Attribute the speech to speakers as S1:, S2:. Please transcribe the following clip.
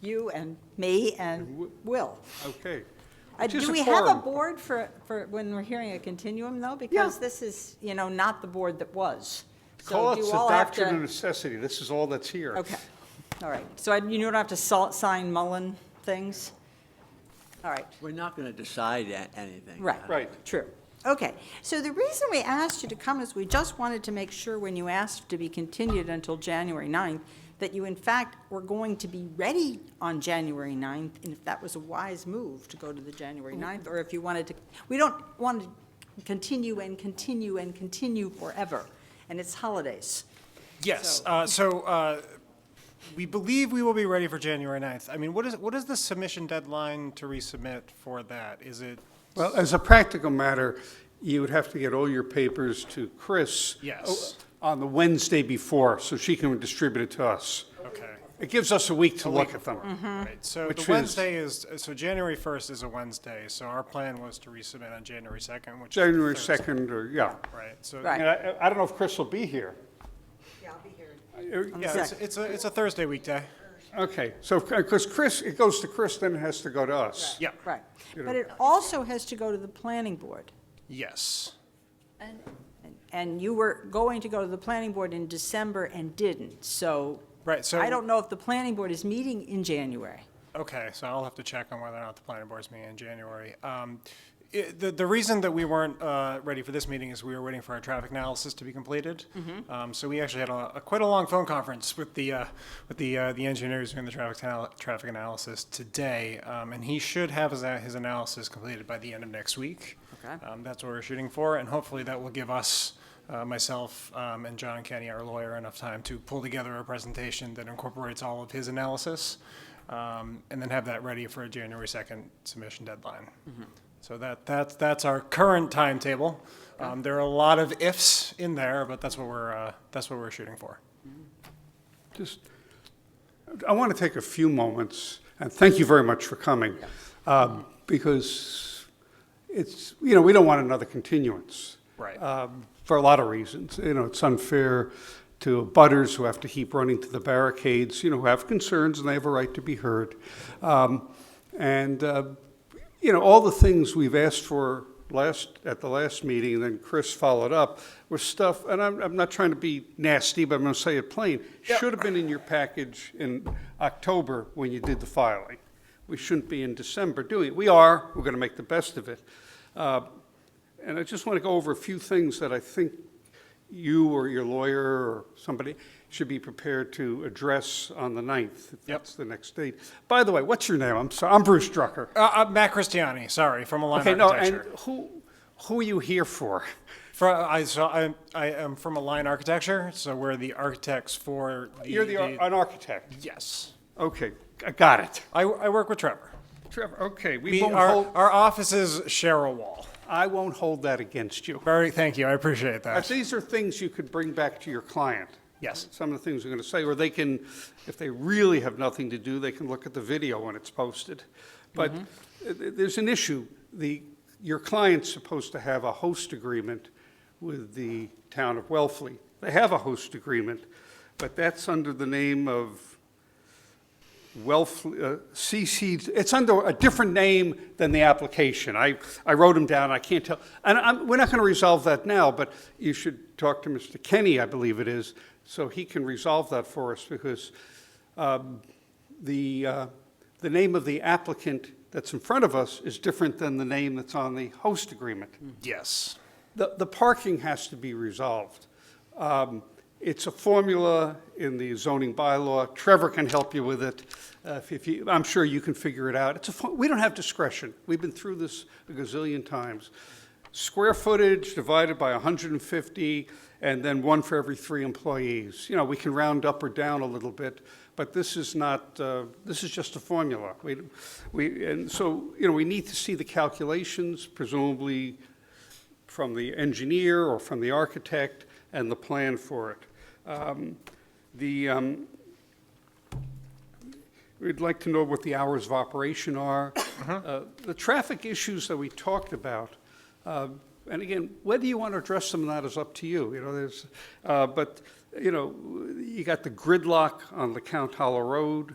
S1: you and me
S2: And
S1: and
S2: Wi-
S1: Will.
S2: Okay.
S1: Uh,
S2: Which is
S1: Do we have a
S2: quorum.
S1: board for, for when we're hearing a continuum, though? Because
S2: Yeah.
S1: this is, you know, not the board that was. So
S2: Call it
S1: do
S2: the
S1: you all have
S2: doctrine
S1: to-
S2: of necessity. This is all that's here.
S1: Okay, all right. So I- you don't have to salt, sign Mullen things? All right.
S3: We're not going to decide a- anything.
S1: Right.
S2: Right.
S1: True. Okay. So the reason we asked you to come is we just wanted to make sure when you asked to be continued until January 9th, that you in fact were going to be ready on January 9th, and if that was a wise move to go to the January 9th, or if you wanted to, we don't want to continue and continue and continue forever, and it's holidays.
S4: Yes,
S1: So-
S4: uh, so, uh, we believe we will be ready for January 9th. I mean, what is, what is the submission deadline to resubmit for that? Is it,
S2: Well, as a practical matter, you would have to get all your papers to Chris.
S4: Yes.
S2: o- On the Wednesday before, so she can distribute it to us.
S4: okay,
S2: It gives us a week to look at them.
S1: Mm-hmm. Hmm.
S4: right, so
S2: Which
S4: the
S2: is-
S4: Wednesday is, so January 1st is a Wednesday, so our plan was to resubmit on January 2nd, which is.
S2: January
S4: Thursday,
S2: 2nd, or, yeah.
S4: Right, so.
S1: Right.
S2: And I, I don't know if Chris will be here.
S1: Yeah, I'll be here.
S2: Uh,
S4: Yeah, it's, it's a, it's a Thursday weekday.
S2: Okay, so, because Chris, it goes to Chris, then it has to go to us.
S4: Yeah,
S1: Right.
S2: You
S1: But
S2: know.
S1: it also has to go to the planning board.
S4: yes.
S1: And you were going to go to the planning board in December and didn't, so.
S4: Right, so-
S1: I don't know if the planning board is meeting in January.
S4: Okay, so I'll have to check on whether or not the planning board's meeting in January. Um, i- The, the reason that we weren't uh, ready for this meeting is we were waiting for our traffic analysis to be completed. Um, So we actually had a, a quite a long phone conference with the, uh, with the, uh, the engineers doing the traffic, anal- traffic analysis today. Um, And he should have his, a- his analysis completed by the end of next week.
S1: Okay.
S4: Um, That's what we're shooting for, and hopefully that will give us, uh, myself um, and John Kenny, our lawyer, enough time to pull together a presentation that incorporates all of his analysis, um, and then have that ready for a January 2nd submission deadline.
S2: Mm-hmm.
S4: So that, that's, that's our current timetable. Um, There are a lot of ifs in there, but that's what we're, uh, that's what we're shooting for.
S2: Just, I want to take a few moments, and thank you very much for coming, um, because it's, you know, we don't want another continuance.
S4: Right.
S2: um, For a lot of reasons. You know, it's unfair to butters who have to keep running to the barricades, you know, who have concerns and they have a right to be heard. Um, And, uh, you know, all the things we've asked for last, at the last meeting, and then Chris followed up, were stuff, and I'm, I'm not trying to be nasty, but I'm going to say it plain, should have been in your package in October when you did the filing. We shouldn't be in December doing it. We are, we're going to make the best of it. Uh, and I just want to go over a few things that I think you or your lawyer or somebody should be prepared to address on the 9th. If that's the next date. By the way, what's your name? I'm sorry, I'm Bruce Drucker.
S4: Uh, uh, Matt Christiani, sorry, from Align
S2: Okay, no, and
S4: Architecture.
S2: who, who are you here for?
S4: For, I, so I, I am from Align Architecture, so we're the architects for the.
S2: You're the, ar- an architect.
S4: Yes.
S2: Okay, I got it.
S4: I, I work with Trevor.
S2: Trevor, okay, we
S4: We,
S2: won't
S4: our,
S2: hold,
S4: our office is Cheryl Wall.
S2: I won't hold that against you.
S4: Very, thank you, I appreciate
S2: Uh,
S4: that.
S2: These are things you could bring back to your client.
S4: Yes.
S2: Some of the things we're going to say, or they can, if they really have nothing to do, they can look at the video when it's posted. But uh, th- there's an issue. The, your client's supposed to have a host agreement with the town of Wellfleet. They have a host agreement, but that's under the name of Wellfleet, uh, CC, it's under a different name than the application. I, I wrote them down, I can't tell, and I'm, we're not going to resolve that now, but you should talk to Mr. Kenny, I believe it is, so he can resolve that for us, because um, the, uh, the name of the applicant that's in front of us is different than the name that's on the host agreement.
S4: Yes.
S2: The, the parking has to be resolved. Um, It's a formula in the zoning bylaw. Trevor can help you with it. Uh, if- If you, I'm sure you can figure it out. It's a, fo- we don't have discretion. We've been through this a gazillion times. Square footage divided by 150, and then one for every three employees. You know, we can round up or down a little bit, but this is not, uh, this is just a formula. We, we, and so, you know, we need to see the calculations, presumably from the engineer or from the architect and the plan for it. Um, The, um, we'd like to know what the hours of operation are. Uh, The traffic issues that we talked about, uh, and again, whether you want to address them or not is up to you, you know, there's, uh, but, you know, you got the gridlock on the Count Hollow Road,